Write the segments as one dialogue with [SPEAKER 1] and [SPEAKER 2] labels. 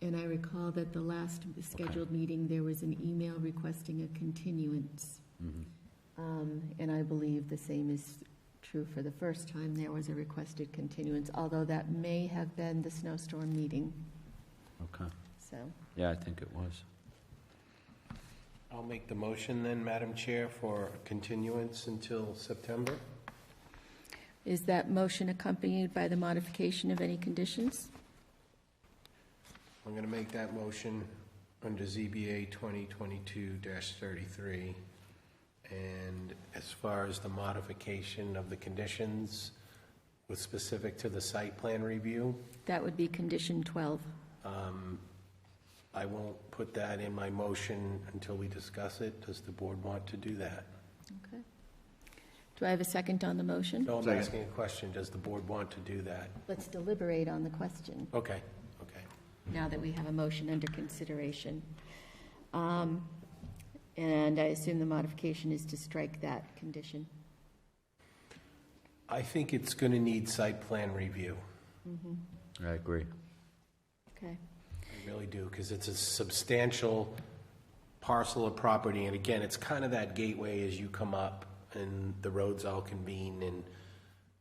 [SPEAKER 1] And I recall that the last scheduled meeting, there was an email requesting a continuance.
[SPEAKER 2] Mhm.
[SPEAKER 1] Um, And I believe the same is true for the first time, there was a requested continuance, although that may have been the snowstorm meeting,
[SPEAKER 2] Okay.
[SPEAKER 1] so.
[SPEAKER 2] Yeah, I think it was.
[SPEAKER 3] I'll make the motion then, Madam Chair, for continuance until September.
[SPEAKER 1] Is that motion accompanied by the modification of any conditions?
[SPEAKER 3] I'm going to make that motion under ZBA 2022-33. And as far as the modification of the conditions with specific to the site plan review,
[SPEAKER 1] That would be condition 12.
[SPEAKER 3] um, I won't put that in my motion until we discuss it. Does the board want to do that?
[SPEAKER 1] Okay. Do I have a second on the motion?
[SPEAKER 3] No, I'm
[SPEAKER 4] Second.
[SPEAKER 3] asking a question. Does the board want to do that?
[SPEAKER 1] Let's deliberate on the question.
[SPEAKER 3] Okay, okay.
[SPEAKER 1] now that we have a motion under consideration. Um, And I assume the modification is to strike that condition.
[SPEAKER 3] I think it's going to need site plan review.
[SPEAKER 2] I agree.
[SPEAKER 1] Okay.
[SPEAKER 3] I really do, because it's a substantial parcel of property, and again, it's kind of that gateway as you come up, and the roads all convene, and,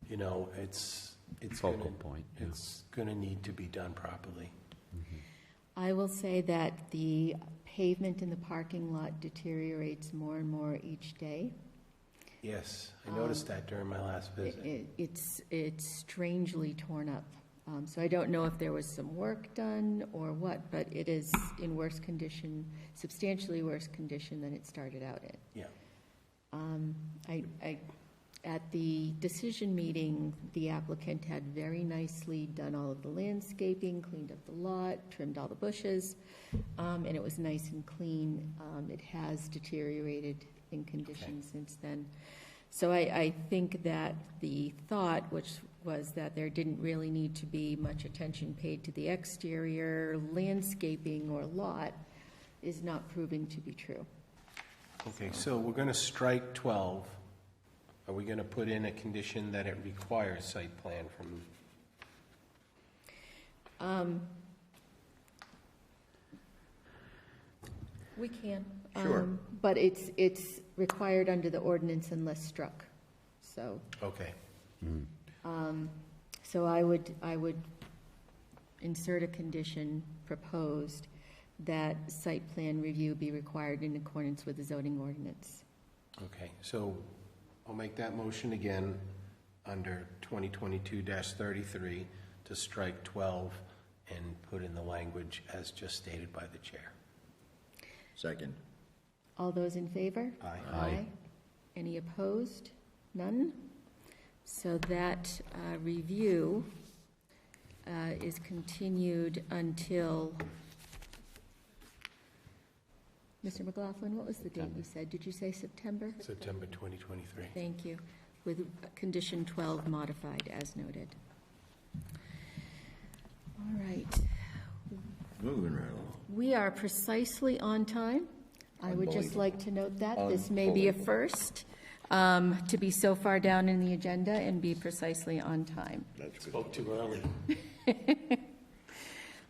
[SPEAKER 3] you know, it's, it's gonna...
[SPEAKER 2] Focal point, yeah.
[SPEAKER 3] It's gonna need to be done properly.
[SPEAKER 1] I will say that the pavement in the parking lot deteriorates more and more each day.
[SPEAKER 3] Yes, I noticed that during my last
[SPEAKER 1] Um, It-
[SPEAKER 3] visit.
[SPEAKER 1] it- It's, it's strangely torn up. Um, So I don't know if there was some work done or what, but it is in worse condition, substantially worse condition than it started out in.
[SPEAKER 3] Yeah,
[SPEAKER 1] Um, I, I, at the decision meeting, the applicant had very nicely done all of the landscaping, cleaned up the lot, trimmed all the bushes, um, and it was nice and clean. Um, it has deteriorated in condition since then. So I, I think that the thought, which was that there didn't really need to be much attention paid to the exterior landscaping or lot, is not proving to be true.
[SPEAKER 3] okay, so we're gonna strike 12. Are we gonna put in a condition that it requires site plan from,
[SPEAKER 1] We can.
[SPEAKER 4] Sure.
[SPEAKER 1] um, But it's, it's required under the ordinance unless struck. So, um,
[SPEAKER 3] okay,
[SPEAKER 1] so I would, I would insert a condition proposed that site plan review be required in accordance with the zoning ordinance.
[SPEAKER 3] okay. So I'll make that motion again under 2022-33 to strike 12 and put in the language as just stated by the chair.
[SPEAKER 4] Second.
[SPEAKER 1] All those in favor?
[SPEAKER 3] Aye.
[SPEAKER 1] Any opposed? None? So that uh, review uh, is continued until, Mr. McLaughlin, what was the date you said? Did you say September?
[SPEAKER 3] September 2023.
[SPEAKER 1] Thank you. With condition 12 modified as noted. All right.
[SPEAKER 4] Moving right along.
[SPEAKER 1] We are precisely on time. I would just
[SPEAKER 4] Unbelievable.
[SPEAKER 1] like to note that this may be a
[SPEAKER 4] Unbelievable.
[SPEAKER 1] first, um, to be so far down in the agenda and be precisely on time.
[SPEAKER 4] That's good.
[SPEAKER 3] Spoke too early.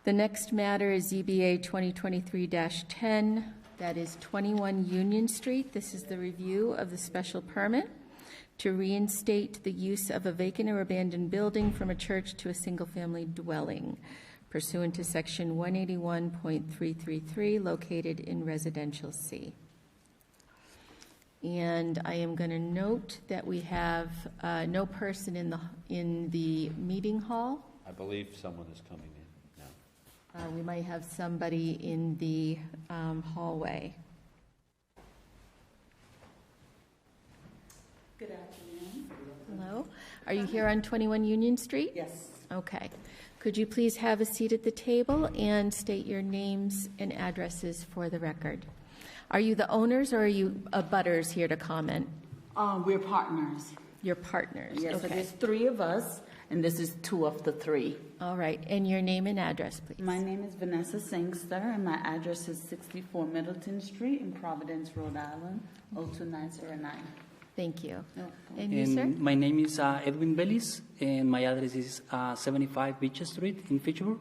[SPEAKER 1] The next matter is E ZBA 2023-10, that is 21 Union Street. This is the review of the special permit to reinstate the use of a vacant or abandoned building from a church to a single-family dwelling pursuant to Section 181.333, located in Residential C. And I am going to note that we have uh, no person in the, in the meeting hall.
[SPEAKER 2] I believe someone is coming in now.
[SPEAKER 1] Uh, We might have somebody in the um, hallway.
[SPEAKER 5] Good afternoon.
[SPEAKER 1] Hello? Are you here on 21 Union Street?
[SPEAKER 5] Yes,
[SPEAKER 1] Okay. Could you please have a seat at the table and state your names and addresses for the record? Are you the owners or are you abutters here to comment?
[SPEAKER 5] um, we're partners.
[SPEAKER 1] Your partners?
[SPEAKER 5] Yes, so
[SPEAKER 1] Okay.
[SPEAKER 5] there's three of us, and this is two of the three.
[SPEAKER 1] All right, and your name and address,
[SPEAKER 5] My
[SPEAKER 1] please.
[SPEAKER 5] name is Vanessa Sangster, and my address is 64 Middleton Street in Providence, Rhode Island, 02909.
[SPEAKER 1] Thank you.
[SPEAKER 5] No
[SPEAKER 1] And you, sir?
[SPEAKER 6] And my name is uh, Edwin Bellis, and my address is uh, 75 Beach Street in Fitchburg.